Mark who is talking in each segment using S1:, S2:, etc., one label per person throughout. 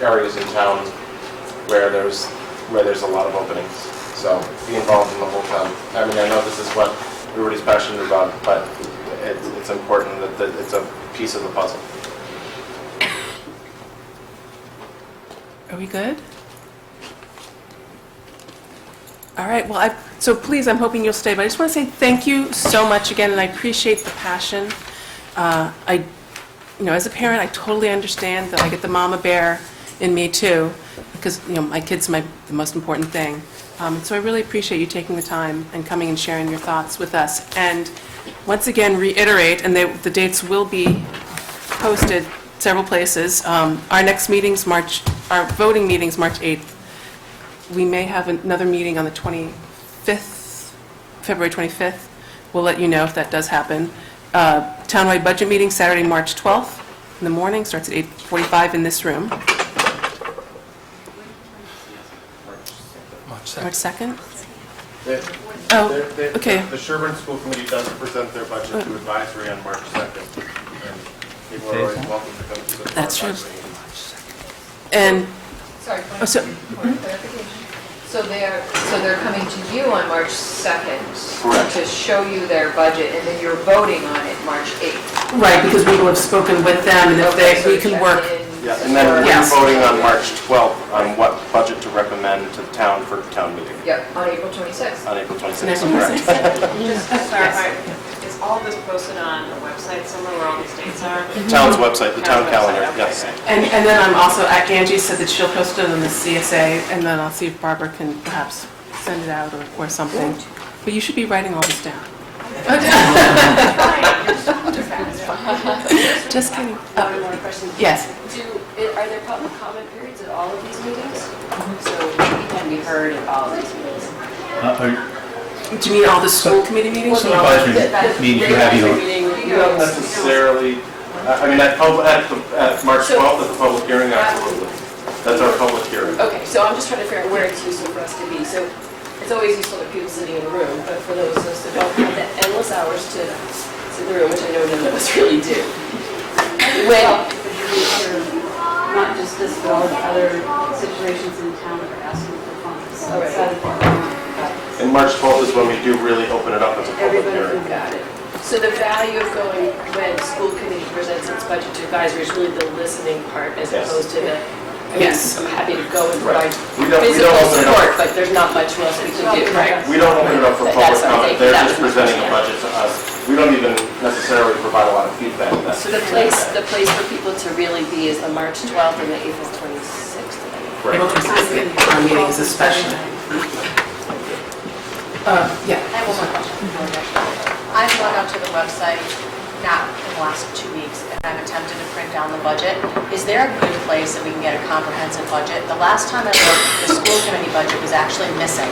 S1: areas in town where there's, where there's a lot of openings. So be involved in the whole town. I mean, I know this is what everybody's passionate about, but it's, it's important that, that it's a piece of the puzzle.
S2: Are we good? All right, well, I, so please, I'm hoping you'll stay, but I just want to say thank you so much again, and I appreciate the passion. Uh, I, you know, as a parent, I totally understand that I get the mama bear in me too, because, you know, my kid's my, the most important thing. Um, So I really appreciate you taking the time and coming and sharing your thoughts with us. And once again, reiterate, and they- the dates will be posted several places. Um, Our next meeting's March, our voting meeting's March 8th. We may have another meeting on the 25th, February 25th. We'll let you know if that does happen. Uh, Townwide budget meeting Saturday, March 12th in the morning, starts at 8:45 in this room.
S3: March
S2: March
S3: 2nd.
S2: 2nd?
S1: They-
S2: Oh,
S1: they- they-
S2: okay.
S1: The Sherburne School Committee does present their budget to advisory on March 2nd. and People are always welcome to come to the.
S2: That's true.
S1: advisory meeting.
S2: And,
S4: Sorry, point
S2: Oh, so-
S4: of point of clarification. So they're, so they're coming to you on March 2nd?
S1: Correct.
S4: To show you their budget, and then you're voting on it March 8th?
S2: right, because we will have spoken with them, and if
S4: Okay,
S2: they,
S4: so
S2: we can
S4: check
S2: work.
S4: in
S1: Yeah, and then we're
S2: Yes.
S1: voting on March 12th on what budget to recommend to the town for town meeting
S4: Yep, on April 26th.
S1: on April 26th,
S2: Next
S1: correct?
S2: one.
S5: Just to clarify, is all of this posted on the website somewhere where all these dates are?
S1: Town's website, the town
S5: Town
S1: calendar,
S5: website, okay,
S1: yes.
S5: great.
S2: And, and then I'm also, Angie said that she'll post it on the CSA, and then I'll see if Barbara can perhaps send it out or, or something. But you should be writing all this down. Just kidding.
S6: Uh, One more question.
S2: Yes.
S6: Do, are there public comment periods at all of these meetings?
S4: Mm-hmm.
S6: So we can be heard at all of these meetings?
S7: Uh,
S2: Do you mean all the school committee meetings?
S7: Well, no. Advisory meetings, you have your-
S6: meeting,
S1: You don't necessarily, I I mean, at pub- at the- at March
S6: So-
S1: 12th, at the public hearing, absolutely. That's our public hearing.
S6: Okay, so I'm just trying to figure out where it's useful for us to be. So it's always useful to people sitting in the room, but for those of us that don't have the endless hours to sit in the room, which I know none of us really do. When,
S8: not just this bill, but other situations in town that are asking for funds um, outside of the
S1: And March 12th is when we do really open it up as a public
S6: Everybody
S1: hearing.
S6: who got it. So the value of going when school committee presents its budget to advisory is really the listening part as
S1: Yes.
S6: opposed to the, I mean,
S2: Yes.
S6: I'm happy to go and
S1: Right.
S6: provide
S1: We don't, we
S6: physical
S1: don't open it
S6: support,
S1: up,
S6: but there's not much else we can do, right?
S1: we don't open it up for
S6: That's
S1: public
S6: what I'm
S1: comment.
S6: thinking.
S1: They're
S6: That
S1: just
S6: was my
S1: presenting a
S6: question.
S1: budget to us. We don't even necessarily provide a lot of feedback. That's-
S6: So the place, the place for people to really be is the March 12th and the April 26th. I think.
S1: Right.
S2: Our meetings especially. Uh, yeah.
S9: I have one more question. I've gone out to the website, not in the last two weeks, and I've attempted to print down the budget. Is there a good place that we can get a comprehensive budget? The last time I looked, the school committee budget was actually missing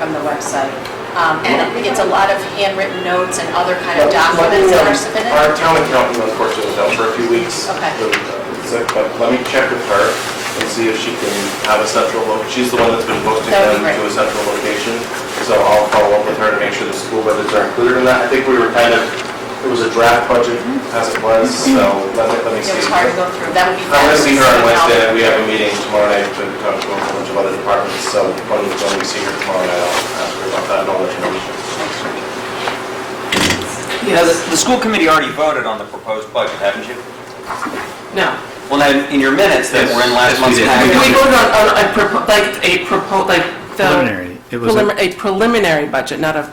S9: from the website. Um, And it's a lot of handwritten notes and other kind
S1: Let
S9: of
S1: me,
S9: documents that
S1: um,
S9: are submitted.
S1: Our town accountant unfortunately was out for a few weeks.
S9: Okay.
S1: So, But let me check with her and see if she can have a central, lo- she's the one that's been posting
S9: That
S1: them
S9: would be
S1: to
S9: great.
S1: a central location. So I'll follow up with her to make sure the school budgets are included in that. I think we were kind of, it was a draft budget as it was, so let me, let me
S9: Mm-hmm. It
S1: see.
S9: was hard to go through. That would be.
S1: I'm gonna see her on
S9: fabulous.
S1: Wednesday, we have a meeting tomorrow night to talk to a whole bunch of other departments, so when when we see her tomorrow night, I'll ask her about that and all that information.
S3: Yeah,
S10: Now, the, the school committee already voted on the proposed budget, haven't you?
S2: No.
S10: Well, now, in your minutes that were in last
S3: Yes, yes, we
S10: month's
S3: did.
S2: We
S10: packet.
S2: voted on, on a propo- like a propo, like the.
S7: Preliminary. It was a-
S2: prelimi- A preliminary budget, not a,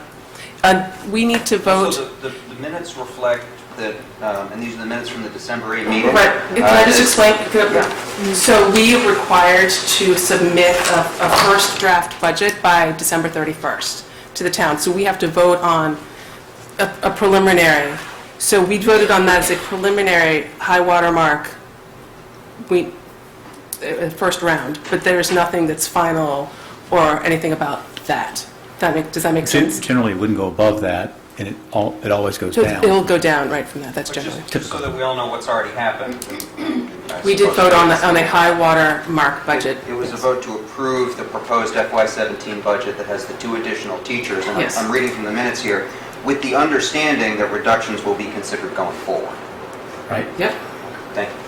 S2: uh, we need to vote.
S10: So the, the- the minutes reflect that, um, and these are the minutes from the December 8 meeting.
S2: Right, can I just
S10: Uh,
S2: explain? So we are required to submit a, a first draft budget by December 31st to the town. So we have to vote on a a preliminary. So we voted on that as a preliminary high water mark, we, uh, uh, first round, but there's nothing that's final or anything about that. That make, does that make
S7: Gen-
S2: sense?
S7: Generally, it wouldn't go above that, and it al- it always goes
S2: So
S7: down.
S2: it'll go down right from that, that's
S10: but
S2: generally.
S10: just- Just so that we all know what's already happened. I
S2: We did
S10: suppose
S2: vote on, the-
S10: that's-
S2: on a high water mark budget.
S10: It was a vote to approve the proposed FY17 budget that has the two additional teachers. and I'm-
S2: Yes.
S10: I'm reading from the minutes here, with the understanding that reductions will be considered going forward.
S7: Right?
S2: Yep.
S10: Thank you.